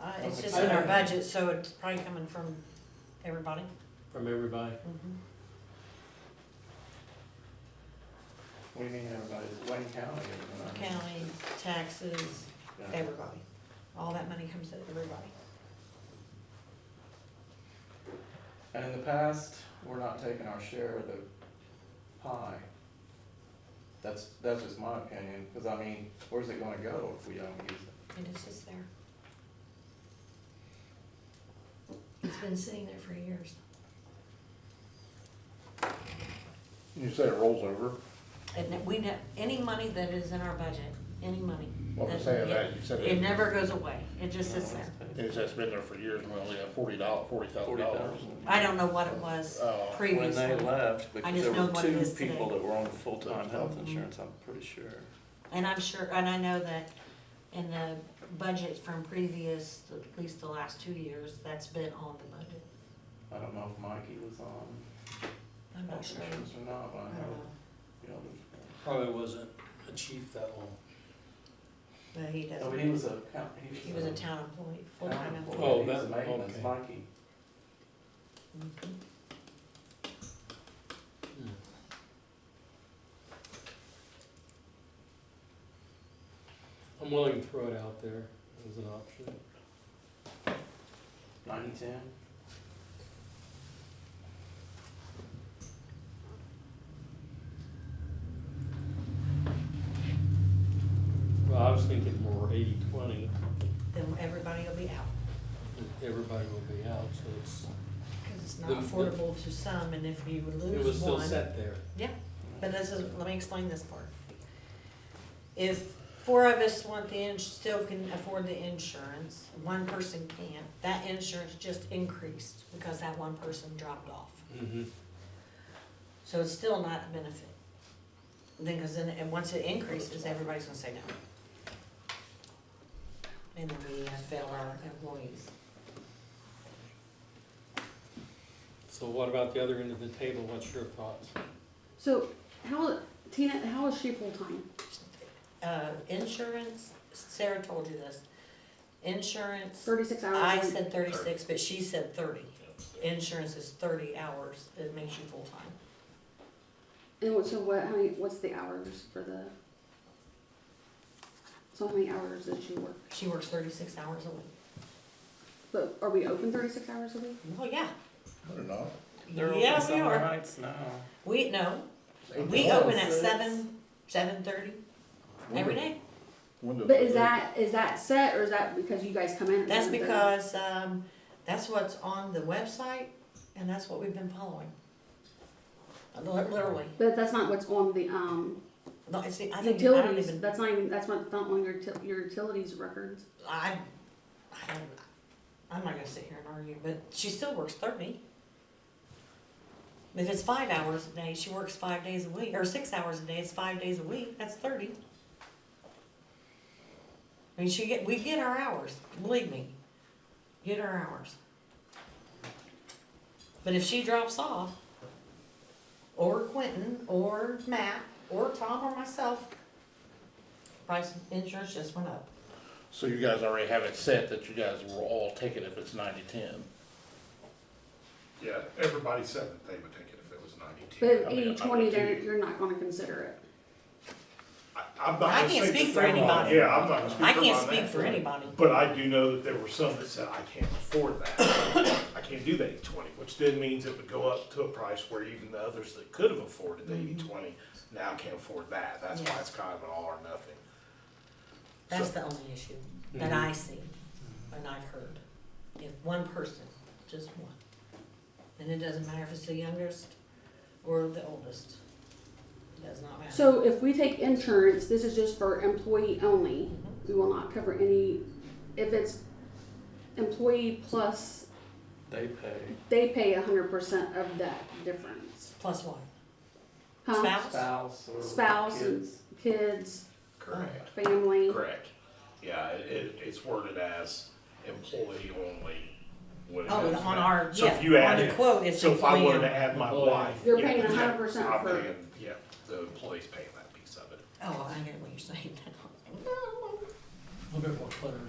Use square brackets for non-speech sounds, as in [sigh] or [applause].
Uh, It's just in our budget, so it's probably coming from everybody. from everybody. Mm-hmm. What do you mean everybody, Wayne County? everybody? County, taxes, Yeah. everybody. All that money comes to everybody. And in the past, we're not taking our share of the pie. That's, that's just my opinion, because I mean, where's it gonna go if we don't use it? It is just there. It's been sitting there for years. You say it rolls over? And that we, ne- any money that is in our budget, any money. Well, I'm that- saying that, you said It it, never goes away. It just sits there. it's just been there for years, and we only have forty dollars, forty thousand Forty dollars. thousand. I don't know what it was Oh. When previously. they left, because just there know were what it two is today. people that were on full-time health Mhm. insurance, I'm pretty sure. And I'm sure, and I know that in the budget from previous, at least the last two years, that's been on the budget. I don't know if Mikey was on I'm not health sure. insurance or not, but I I don't know, know. you know, there's. Probably wasn't a chief that long. But he No, but Oh, he doesn't, was a, count- he was a. he was a town employee, full-time town employee. employee. Oh, He was that- a maintenance, okay. Mikey. Mhm. Hmm. I'm willing to throw it out there as an option. Ninety-ten? Well, I was thinking more eighty, twenty, Then everybody will be out, everybody will be out, so it's, because it's not The- the- affordable to some, and if you would it was lose still one. set there. Yeah, but this is, let me explain this part. If four of us want the ins, still can afford the insurance, one person can't, that insurance just increased because that one person dropped off. Mm-hmm. So it's still not a benefit. Then, cause then, and once it increases, everybody's gonna say no. And then we uh, fail our employees. So what about the other end of the table? What's your thoughts? So how Tina? How is she full time? Uh, insurance, Sarah told you this, insurance, Thirty six hours. I Um, a week. said thirty-six, but she said thirty. Insurance is thirty hours, it makes you full-time. And what, so what? How many? What's the hours for the? So how many hours does she work? She works thirty-six hours a week. But are we open thirty six hours a week? Well, yeah, I don't know. They're open Yeah, we summer are. nights now. we, no, It's eight we dollars. open at Six. seven, seven-thirty every Windows- day. windows But is are that is that set or is that because you guys come in? at That's 7:30? because, um, that's what's on the website, and that's what we've been following. Li- Literally, But that's not what's on the um No, it's the- I think, I don't utilities. even, That's not even that's not, not on your til- your utilities records. I, I don't, I'm not gonna sit here and argue, but she still works thirty. If it's five hours a day, she works five days a week, or six hours a day, it's five days a week, that's thirty. I mean, she get, we get our hours, believe me, get our hours. But if she drops off, or Quentin, or Matt, or Tom, or myself, price of insurance just went up. So you guys already have it set that you guys will all take it if it's ninety-ten? Yeah, everybody said that they would take it if it was But ninety-two. if I mean, eighty I twenty, would they're too. you're not going to consider it. I, I'm not gonna I can't say speak that for they're wrong. anybody. Yeah, I'm not gonna speak for I them can't on speak that. for anybody. But I do know that there were some that said, I can't afford that. I can't do the eighty-twenty, which then means it would go up to a price where even the others that could have afforded the eighty-twenty now can't afford that. That's why Mm-hmm. Yes. it's kind of an all or nothing. That's the only issue that I see and I've heard. If one person, just one. And it doesn't matter if it's the youngest or the oldest. It does not matter. So if we take insurance, this is just for employee only. We will not cover any, if it's employee plus, They pay. they pay a hundred percent of that difference. Plus one. Huh? Spouse? Spouse or Spouse and- kids. Kids, Oh. Correct. family. Correct. Yeah, it, it, it's worded as employee only. when it Oh, is on now. our, So if you yeah, on add the it, quote, it's So if I wanted to employee. add my Employee. wife. You're yeah, paying yeah, 100% I'm for- paying- Yeah, the employee's paying that piece of it. [laughs] Oh, I get what you're saying now. A little bit more cluttered.